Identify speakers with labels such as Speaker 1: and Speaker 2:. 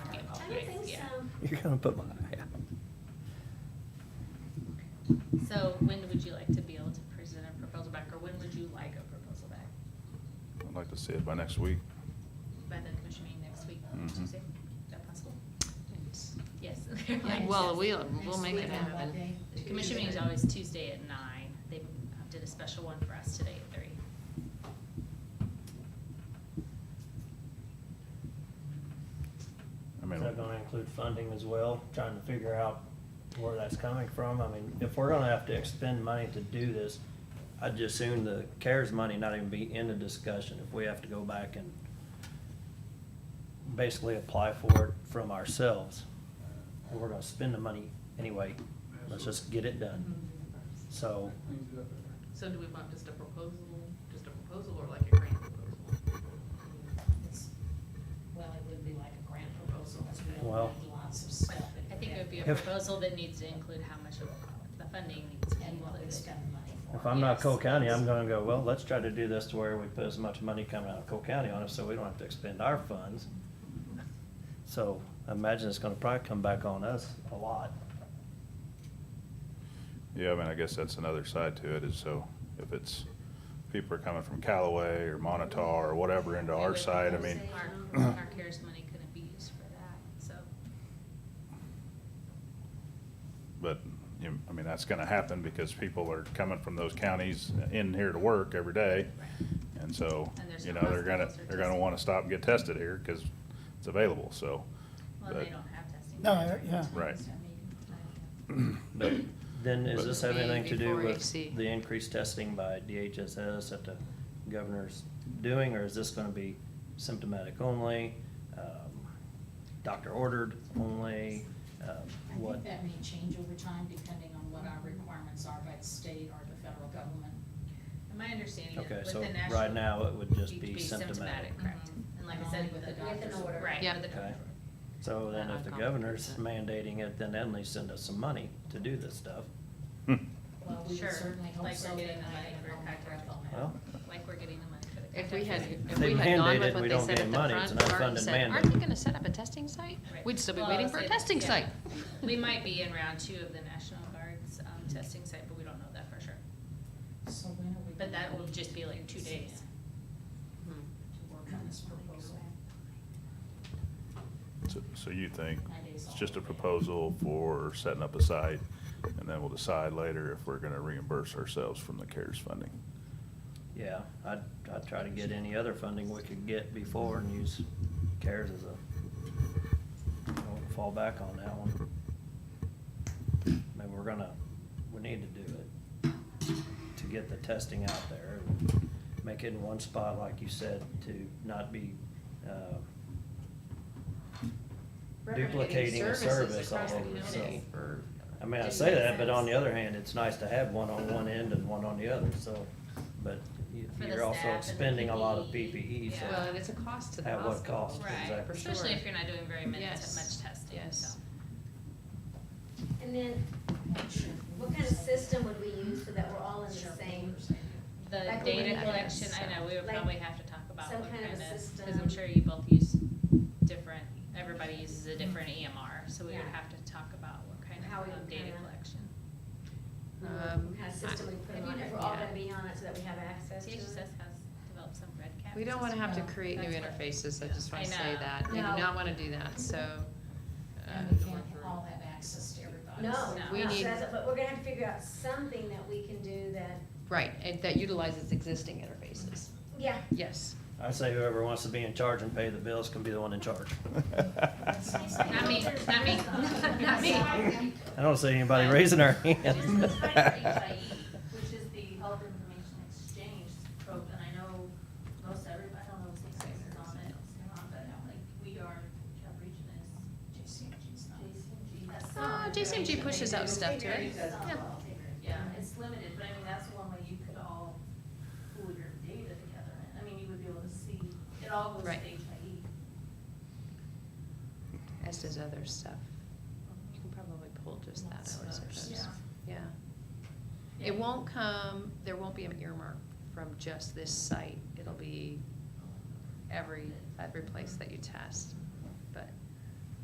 Speaker 1: don't
Speaker 2: Right,
Speaker 1: think
Speaker 2: yeah.
Speaker 1: so.
Speaker 3: You're gonna put my eye out.
Speaker 2: So when would you like to be able to present a proposal back, or when would you like a proposal back?
Speaker 4: I'd like to see it by next week.
Speaker 2: By the commission meeting next week,
Speaker 4: Mhm.
Speaker 5: Mm-hmm.
Speaker 2: Tuesday? Is that possible? Yes.
Speaker 6: Yeah, Well, we'll, we'll make it happen.
Speaker 2: The commission meeting is always Tuesday at nine. They uh, did a special one for us today at three.
Speaker 4: I mean,
Speaker 5: Is that gonna include funding as well, trying to figure out where that's coming from? I mean, if we're gonna have to expend money to do this, I'd just assume the CARES money not even be in the discussion if we have to go back and basically apply for it from ourselves. And we're gonna spend the money anyway, let's just get it done.
Speaker 6: Mm-hmm.
Speaker 5: So,
Speaker 6: So do we want just a proposal, just a proposal or like a grant proposal?
Speaker 7: It's- Well, it would be like a grant proposal, because we
Speaker 5: Well-
Speaker 7: don't need lots of stuff. in
Speaker 2: I think it would be a
Speaker 5: If-
Speaker 2: proposal that needs to include how much of the funding needs to be
Speaker 7: And what we
Speaker 2: included.
Speaker 7: spend the money for.
Speaker 5: if I'm not Cole
Speaker 2: Yes.
Speaker 5: County, I'm gonna go, well, let's try to do this to where we put as much money coming out of Cole County on it, so we don't have to expend our funds. So I imagine it's gonna probably come back on us a lot.
Speaker 4: yeah, I mean, I guess that's another side to it is so if it's, people are coming from Callaway or Monitar or whatever into our side, I mean,
Speaker 2: Our, our CARES money couldn't be used for that, so.
Speaker 4: but, you know, I mean, that's gonna happen because people are coming from those counties in here to work every day. And so,
Speaker 2: And there's
Speaker 4: you
Speaker 2: no
Speaker 4: know, they're gonna,
Speaker 2: hospitals or
Speaker 4: they're gonna
Speaker 2: testing.
Speaker 4: wanna stop and get tested here because it's available, so.
Speaker 2: Well, they
Speaker 4: but-
Speaker 2: don't have testing.
Speaker 8: No,
Speaker 2: laboratories,
Speaker 8: yeah.
Speaker 4: Right.
Speaker 2: so maybe-
Speaker 5: But then
Speaker 4: But-
Speaker 5: does this have anything to do with
Speaker 6: 4HC.
Speaker 5: the increased testing by DHSS that the governor's doing, or is this gonna be symptomatic only? um, Doctor ordered only, um,
Speaker 7: I
Speaker 5: what?
Speaker 7: think that may change over time depending on what our requirements are by the state or the federal government.
Speaker 2: And my understanding is
Speaker 5: Okay,
Speaker 2: with the
Speaker 5: so
Speaker 2: national.
Speaker 5: right now it would just
Speaker 2: you'd
Speaker 5: be symptomatic.
Speaker 2: Correct.
Speaker 8: Mm-hmm.
Speaker 6: Mhm.
Speaker 2: And like I
Speaker 7: Only
Speaker 2: said,
Speaker 7: with
Speaker 2: with
Speaker 7: the
Speaker 2: the.
Speaker 1: doctor's order.
Speaker 2: Right,
Speaker 6: Yep.
Speaker 2: with the
Speaker 5: Okay.
Speaker 2: doctor's order.
Speaker 5: So then if the governor's mandating it, then at least send us some money to do this stuff.
Speaker 4: Hmm.
Speaker 7: Well, we
Speaker 2: Sure,
Speaker 7: would certainly hope
Speaker 2: like
Speaker 7: so.
Speaker 2: we're
Speaker 7: that
Speaker 2: getting the
Speaker 7: I
Speaker 2: money
Speaker 7: am
Speaker 2: for
Speaker 7: on
Speaker 2: contact
Speaker 7: record.
Speaker 2: tracing.
Speaker 5: Well,
Speaker 2: Like we're getting the money for the.
Speaker 6: If we had,
Speaker 2: contact tracing.
Speaker 6: if
Speaker 5: They
Speaker 6: we had gone
Speaker 5: mandate it,
Speaker 6: with what
Speaker 5: we
Speaker 6: they
Speaker 5: don't
Speaker 6: said
Speaker 5: get
Speaker 6: at the
Speaker 5: money, it's
Speaker 6: front
Speaker 5: not
Speaker 6: part and
Speaker 5: funded
Speaker 6: said, aren't
Speaker 5: mandate."
Speaker 6: you gonna set up a testing site?
Speaker 2: Right.
Speaker 6: We'd still be
Speaker 2: Well,
Speaker 6: waiting
Speaker 2: I'll
Speaker 6: for a
Speaker 2: say that,
Speaker 6: testing
Speaker 2: yeah.
Speaker 6: site.
Speaker 2: We might
Speaker 6: uh,
Speaker 2: be in round two of the National Guard's um, testing site, but we don't know that for sure.
Speaker 7: So when are we?
Speaker 2: But that will
Speaker 7: gonna
Speaker 2: just be like two days.
Speaker 6: Mhm.
Speaker 7: To work on this proposal.
Speaker 4: So- So you think
Speaker 7: That is
Speaker 4: it's just a
Speaker 7: all.
Speaker 4: proposal for setting up a site, and then we'll decide later if we're gonna reimburse ourselves from the CARES funding?
Speaker 5: Yeah, I'd, I'd try to get any other funding we could get before and use CARES as a, fall back on that one. Maybe we're gonna, we need to do it to get the testing out there. and Make it in one spot, like you said, to not be, uh, duplicating a service all over, so. I mean, I say that, but on the other hand, it's nice to have one on one end and one on the other, so, but you-
Speaker 2: For the
Speaker 5: you're also
Speaker 2: staff and the
Speaker 5: expending a lot of
Speaker 2: PPE,
Speaker 5: PPE, so.
Speaker 2: yeah.
Speaker 6: Well, and it's a cost to the
Speaker 5: At what
Speaker 6: hospital.
Speaker 5: cost,
Speaker 2: Right,
Speaker 5: exactly.
Speaker 2: especially if you're not doing very many,
Speaker 6: Yes.
Speaker 2: much testing,
Speaker 6: Yes.
Speaker 2: so.
Speaker 1: And then, what kind of system would we use so that we're all in the same?
Speaker 2: The
Speaker 1: Like
Speaker 2: data
Speaker 6: we-
Speaker 2: collection, I know, we would
Speaker 1: Like
Speaker 2: probably have to talk about
Speaker 1: some
Speaker 2: what
Speaker 1: kind
Speaker 2: kind
Speaker 1: of
Speaker 2: of,
Speaker 1: a
Speaker 2: because
Speaker 1: system.
Speaker 2: I'm sure you both use different, everybody uses a different
Speaker 9: Mm-hmm.
Speaker 2: EMR, so we would
Speaker 1: Yeah.
Speaker 2: have to talk about what kind
Speaker 1: How
Speaker 2: of
Speaker 1: we
Speaker 2: um,
Speaker 1: would
Speaker 2: data
Speaker 1: kinda-
Speaker 2: collection.
Speaker 6: Um,
Speaker 1: What kind of system we put
Speaker 2: have you
Speaker 1: on it?
Speaker 2: never-
Speaker 1: We're all
Speaker 6: yeah.
Speaker 1: gonna be on it so that we have access to it?
Speaker 2: DHSS has developed some red cap.
Speaker 6: We don't wanna have to create new
Speaker 2: That's what-
Speaker 6: interfaces, I
Speaker 2: yeah.
Speaker 6: just wanna
Speaker 2: I
Speaker 6: say
Speaker 2: know.
Speaker 6: that. We do
Speaker 1: No.
Speaker 6: not wanna do that, so.
Speaker 7: And we
Speaker 6: uh,
Speaker 7: can't all have access to everybody.
Speaker 1: No,
Speaker 2: No.
Speaker 6: We
Speaker 1: no,
Speaker 6: need-
Speaker 1: so that's- but we're gonna have to figure out something that we can do that,
Speaker 6: Right, and that utilizes existing interfaces.
Speaker 1: yeah,
Speaker 6: Yes.
Speaker 5: I say whoever wants to be in charge and pay the bills can be the one in charge.
Speaker 2: Not me, not me, not me.
Speaker 5: I don't see anybody raising their hand.
Speaker 9: This is tied to HIE, which is the Health Information Exchange program, and I know most everybody, I don't know if St. Simon's is on it, or not, but like, we are, Cap Region is
Speaker 7: JCMG's not.
Speaker 9: JCMG, that's.
Speaker 6: Uh, JCMG pushes out stuff to it. Yeah.
Speaker 9: Yeah, it's limited, but I mean, that's one way you could all pool your data together, and I mean, you would be able to see, it all goes E. to
Speaker 6: Right.
Speaker 9: HIE.
Speaker 6: As does other stuff. You can probably pull just that
Speaker 7: Lots of
Speaker 6: out, I
Speaker 7: others.
Speaker 6: suppose.
Speaker 9: Yeah.
Speaker 6: Yeah. It won't come, there won't be an earmark from just this site. It'll be every, every place that you test.